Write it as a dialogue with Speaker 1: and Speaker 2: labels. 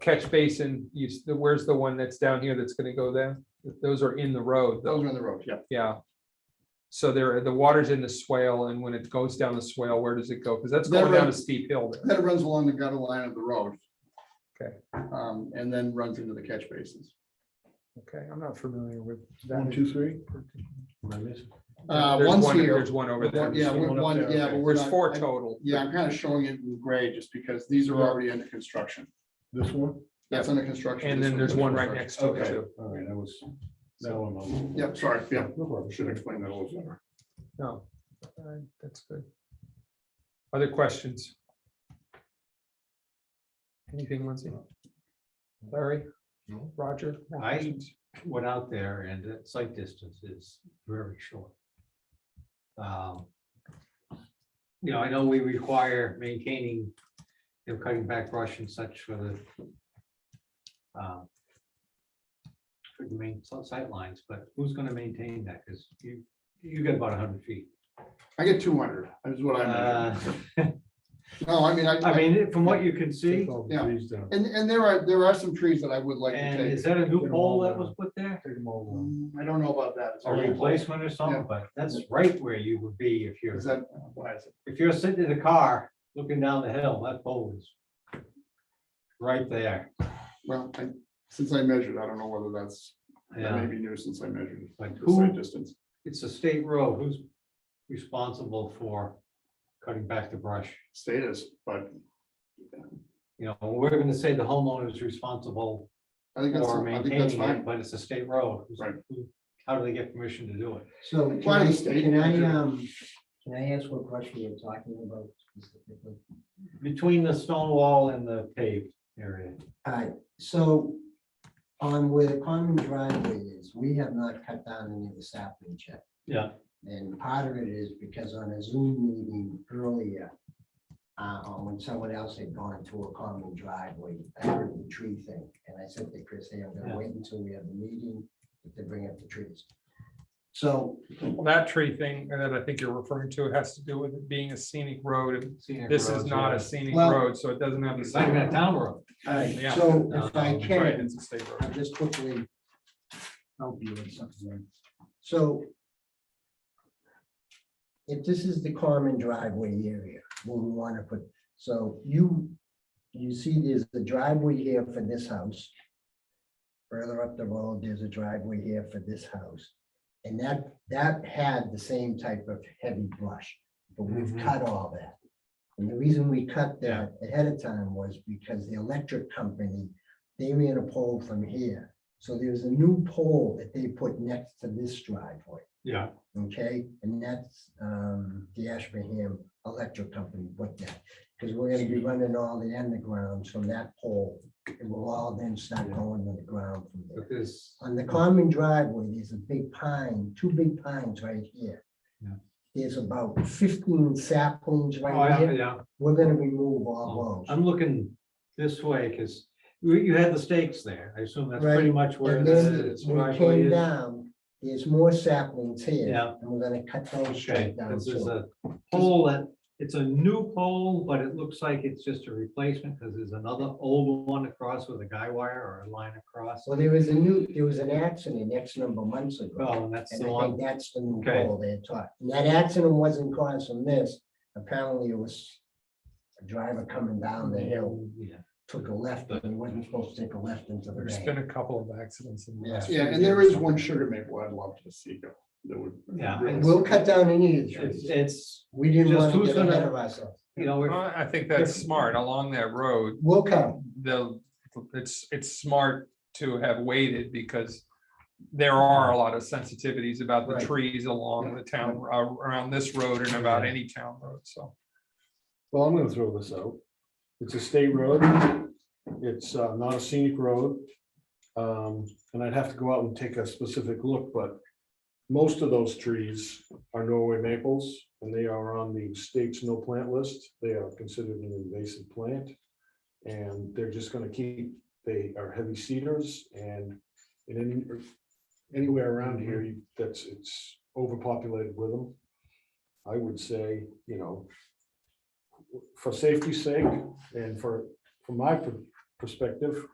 Speaker 1: catch basin, you, s- the- where's the one that's down here that's gonna go there? Those are in the road, though,
Speaker 2: Those are on the road, yeah.
Speaker 1: yeah. So there, the water's in the swale, and when it goes down the swale, where does it go? Because that's going
Speaker 2: Never-
Speaker 1: down a steep hill there.
Speaker 2: That runs along the gutter line of the road.
Speaker 1: Okay.
Speaker 2: Um, and then runs into the catch basins.
Speaker 1: Okay, I'm not familiar with
Speaker 3: One,
Speaker 1: that.
Speaker 3: two, three? Am I missing?
Speaker 2: Uh,
Speaker 1: There's
Speaker 2: one's
Speaker 1: one-
Speaker 2: here.
Speaker 1: There's one over there.
Speaker 2: Yeah,
Speaker 3: There's one
Speaker 2: one,
Speaker 3: up
Speaker 2: one-
Speaker 3: there,
Speaker 2: yeah,
Speaker 3: okay.
Speaker 2: but we're
Speaker 1: There's
Speaker 2: not-
Speaker 1: four
Speaker 2: I-
Speaker 1: total.
Speaker 2: Yeah, I'm kind of showing it in gray just because these are
Speaker 3: Yeah.
Speaker 2: already under construction.
Speaker 3: This one?
Speaker 2: That's under construction.
Speaker 1: And
Speaker 2: this
Speaker 1: then there's
Speaker 2: one's
Speaker 1: one
Speaker 2: under
Speaker 1: right next
Speaker 2: construction.
Speaker 1: to it,
Speaker 3: Okay.
Speaker 1: too.
Speaker 3: All right, I was. That one. I'm-
Speaker 2: Yep, sorry, yeah,
Speaker 3: No problem.
Speaker 2: should explain that a little better.
Speaker 1: No, alright, that's good. Other questions? Anything, Lindsay? Larry?
Speaker 3: No.
Speaker 1: Roger? more
Speaker 4: I-
Speaker 1: questions?
Speaker 4: went out there and that sight distance is very short. Um, You know, I know we require maintaining, you know, cutting back brush and such for the um, for the main si- sight lines, but who's gonna maintain that? Cause you, you get about hundred feet.
Speaker 2: I get two hundred, is what I meant.
Speaker 4: Uh,
Speaker 2: No, I mean, I,
Speaker 4: I mean, from what you can see,
Speaker 3: Take all the
Speaker 2: Yeah.
Speaker 3: trees down.
Speaker 2: and, and there are, there are some trees that I would like to
Speaker 4: and
Speaker 2: take.
Speaker 4: is that a new pole that was put there?
Speaker 3: Take them all down.
Speaker 2: Mm, I don't know about that. It's
Speaker 4: A
Speaker 2: already-
Speaker 4: replacement or something, but that's right where you would be if you're.
Speaker 2: Is that, why is it?
Speaker 4: if you're sitting in the car, looking down the hill, that pole is right there.
Speaker 2: Well, I, since I measured, I don't know whether that's, that may
Speaker 4: Yeah,
Speaker 2: be new since I measured.
Speaker 4: Like
Speaker 2: the site
Speaker 4: who-
Speaker 2: Distance.
Speaker 4: it's a state road. Who's responsible for cutting back the brush?
Speaker 2: status, but
Speaker 4: You know, we're gonna say the homeowner is responsible
Speaker 2: I think that's,
Speaker 4: for
Speaker 2: I think that's
Speaker 4: maintaining it,
Speaker 2: fine.
Speaker 4: but it's a state road. Who's-
Speaker 2: Right.
Speaker 4: who- How do they get permission to do it?
Speaker 5: So
Speaker 2: Why
Speaker 5: can I,
Speaker 2: the state
Speaker 5: can I,
Speaker 2: manager-
Speaker 5: um, can I ask what question you're talking about specifically?
Speaker 4: Between the stone wall and the paved area.
Speaker 5: Alright, so on where the common driveway is, we have not cut down any of the saplings yet.
Speaker 4: Yeah.
Speaker 5: And part of it is because on a Zoom meeting earlier, uh, when someone else had gone to a common driveway, I heard the tree thing, and I said to Chris, hey, I'm
Speaker 4: Yeah.
Speaker 5: gonna wait until we have the meeting to bring up the trees. So
Speaker 1: Well, That tree thing that I think you're referring to has to do with it being a scenic road. and
Speaker 4: scenic
Speaker 1: This is
Speaker 4: roads,
Speaker 1: not
Speaker 4: yeah.
Speaker 1: a scenic
Speaker 5: Well-
Speaker 1: road, so it doesn't have the
Speaker 4: It's not even a
Speaker 1: same.
Speaker 4: town road.
Speaker 5: All right,
Speaker 1: Yeah.
Speaker 5: so if I
Speaker 4: Um,
Speaker 1: Right,
Speaker 5: can,
Speaker 1: it's a state road.
Speaker 5: I'll just quickly help you with something. So if this is the common driveway area, where we want to put, so you, you see there's the driveway here for this house. Further up the road, there's a driveway here for this house. And that, that had the same type of heavy brush, but we've
Speaker 4: Mhm.
Speaker 5: cut all that. And the reason we cut
Speaker 4: Yeah.
Speaker 5: that ahead of time was because the electric company, they ran a pole from here. So there's a new pole that they put next to this driveway,
Speaker 4: Yeah,
Speaker 5: okay? And that's um, the Ashburnham Electric Company put that. Because we're gonna be running all the undergrounds from that pole. It will all then start going to the ground from there.
Speaker 4: but this,
Speaker 5: On the common driveway, there's a big pine, two big pines right here.
Speaker 4: Yeah.
Speaker 5: There's about fifteen saplings
Speaker 4: oh,
Speaker 5: right
Speaker 4: yeah,
Speaker 5: here.
Speaker 4: yeah.
Speaker 5: We're gonna remove
Speaker 4: Oh,
Speaker 5: all those.
Speaker 4: I'm looking this way, because you, you had the stakes there. I assume that's pretty
Speaker 5: Right,
Speaker 4: much where
Speaker 5: And
Speaker 4: this
Speaker 5: then
Speaker 4: is.
Speaker 5: when it came down, there's more saplings here,
Speaker 4: Yeah.
Speaker 5: and we're gonna cut those
Speaker 4: Okay,
Speaker 5: straight down
Speaker 4: Oh, this is
Speaker 5: too.
Speaker 4: a pole that, it's a new pole, but it looks like it's just a replacement, because there's another old one across with a guy wire or a line across.
Speaker 5: Well, there was a new, there was an accident X number of months ago,
Speaker 4: Well, and that's Oh,
Speaker 5: and
Speaker 4: the
Speaker 5: I think
Speaker 4: one,
Speaker 5: that's the new
Speaker 4: Okay.
Speaker 5: pole they had taught. And that accident wasn't caused from this, apparently it was a driver coming down the hill
Speaker 4: yeah,
Speaker 5: took a left, and he wasn't supposed to take a left into the
Speaker 1: There's
Speaker 5: bank.
Speaker 1: been a couple of accidents. in the
Speaker 5: Yeah.
Speaker 1: last few
Speaker 2: Yeah, and there is
Speaker 1: years.
Speaker 2: one sugar maple I'd love to see go. That would.
Speaker 4: Yeah,
Speaker 2: really-
Speaker 4: and
Speaker 5: We'll cut down any of the
Speaker 4: it's,
Speaker 5: trees.
Speaker 4: it's,
Speaker 5: We didn't
Speaker 4: just
Speaker 5: want to
Speaker 4: who's
Speaker 5: get
Speaker 4: gonna-
Speaker 5: ahead of ourselves.
Speaker 4: you know, we're-
Speaker 1: I I think that's smart. Along that road,
Speaker 5: We'll come.
Speaker 1: the, it's, it's smart to have waited because there are a lot of sensitivities about the
Speaker 5: Right.
Speaker 1: trees along the town, uh, around this road and about any town road, so.
Speaker 3: Well, I'm gonna throw this out. It's a state road. It's uh, not a scenic road. Um, and I'd have to go out and take a specific look, but most of those trees are Norway maples and they are on the state's no plant list. They are considered an invasive plant. And they're just gonna keep, they are heavy cedars and in any- anywhere around here, you- that's, it's overpopulated with them. I would say, you know, for safety's sake and for, from my per- perspective.